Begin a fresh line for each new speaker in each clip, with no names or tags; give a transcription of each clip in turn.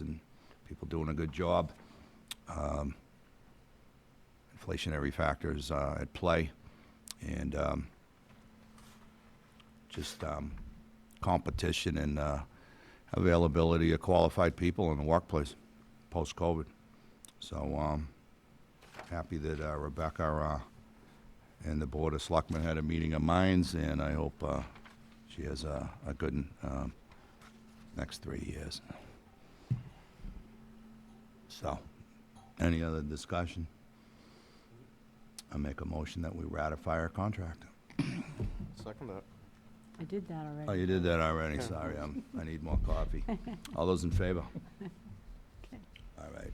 and people doing a good job. Um, Inflationary factors uh, at play, and um, just um, competition and uh, availability of qualified people in the workplace post-COVID. So, um, happy that uh, Rebecca uh, and the Board of Selectmen had a meeting of minds, and I hope uh, she has a a good um, next three years. So, any other discussion? I make a motion that we ratify our contract.
Second that.
I did that already.
Oh, you did that already, sorry, I'm, I need more coffee. All those in favor? All right.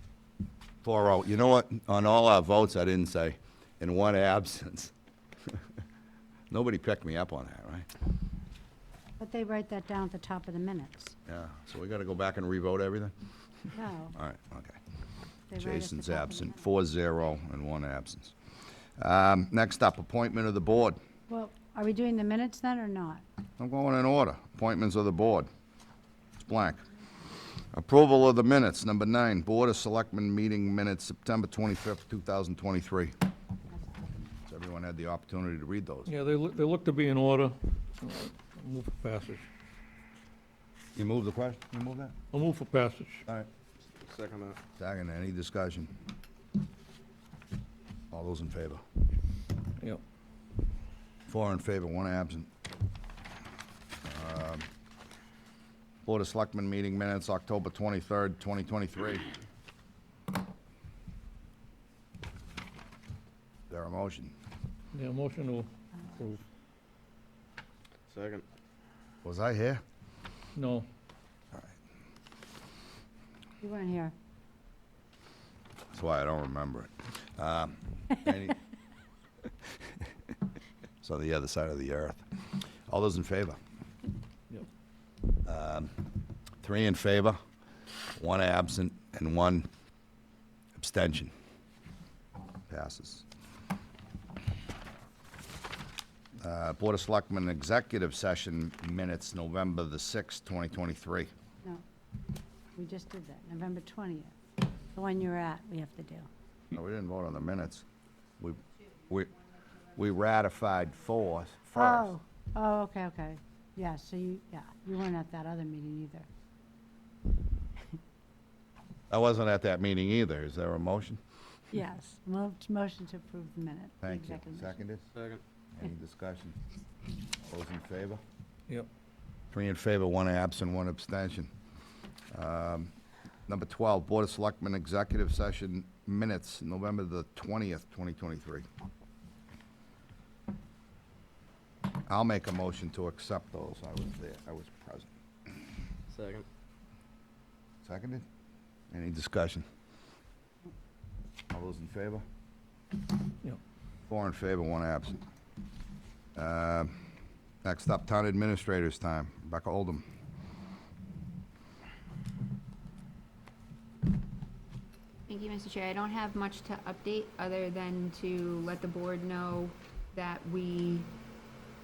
Four oh, you know what, on all our votes, I didn't say, in one absence. Nobody picked me up on that, right?
But they write that down at the top of the minutes.
Yeah, so we gotta go back and revote everything?
No.
All right, okay.
they write at the
Jason's
top of the
absent,
minutes.
four zero and one absence. Um, next up, appointment of the board.
Well, are we doing the minutes then or not?
I'm going in order. Appointments of the board. It's blank. Approval of the minutes, number nine, Board of Selectmen meeting minutes, September 25th, 2023. Has everyone had the opportunity to read those?
Yeah, they look, they look to be in order. Uh, I'll Move for passage.
You move the question, you move that?
I'll move for passage.
All right.
Second that.
Second, any discussion? All those in favor?
Yep.
Four in favor, one absent. Um, Board of Selectmen meeting minutes, October 23rd, 2023. Is there a motion?
Yeah, motion to approve.
Second.
Was I here?
No,
You weren't here.
That's why I don't remember it. Um, any- It's on the other side of the earth. All those in favor?
Yep.
Um, Three in favor, one absent, and one abstention. Passes. Uh, Board of Selectmen Executive Session Minutes, November the 6th, 2023.
No. We just did that, November 20th. The one you're at, we have to do.
No, we didn't vote on the minutes. We, we, we ratified four first.
Oh, oh, okay, okay. Yeah, so you, yeah, you weren't at that other meeting either.
I wasn't at that meeting either. Is there a motion?
Yes, moved, motion to approve the minute. the
Thank you.
executive session.
Seconded?
Second.
Any discussion? All Those in favor?
yep.
Three in favor, one absent, one abstention. Um, Number 12, Board of Selectmen Executive Session Minutes, November the 20th, 2023. I'll make a motion to accept those. I was there, I was present.
Second.
Seconded? Any discussion? All those in favor?
Yep.
Four in favor, one absent. Uh, Next up, Town Administrator's time. Rebecca Oldham.
Thank you, Mr. Chair. I don't have much to update, other than to let the board know that we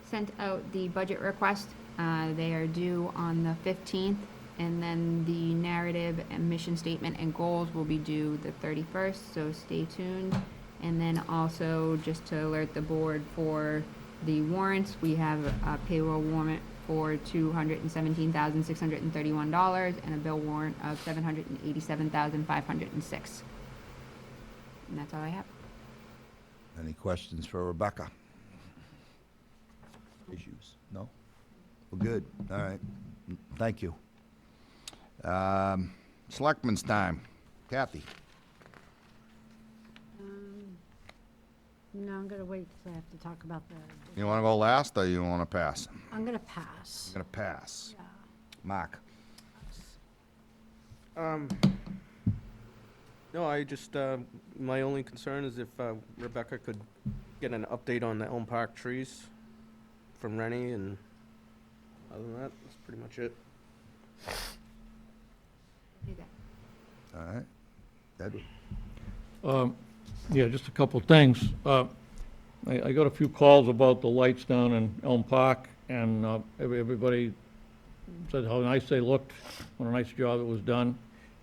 sent out the budget request. Uh, They are due on the 15th, and then the narrative and mission statement and goals will be due the 31st, so stay tuned. And then also, just to alert the board for the warrants, we have a payroll warrant for $217,631 and a bill warrant of $787,506. And that's all I have.
Any questions for Rebecca? Issues? No? Well, good. All right. Thank you. Um, Selectmen's time. Kathy?
Um, No, I'm going to wait because I have to talk about the,
You want to go last, or you want to pass? I'm
I'm going to pass.
going to pass.
Yeah.
Mark?
Um, no, I just, uh, my only concern is if uh, Rebecca could get an update on the Elm Park trees from Rennie and other than that, that's pretty much it.
All right. Edward?
Um, Yeah, just a couple of things. Uh, I, I got a few calls about the lights down in Elm Park, and uh, every- everybody said how nice they looked, what a nice job it was done.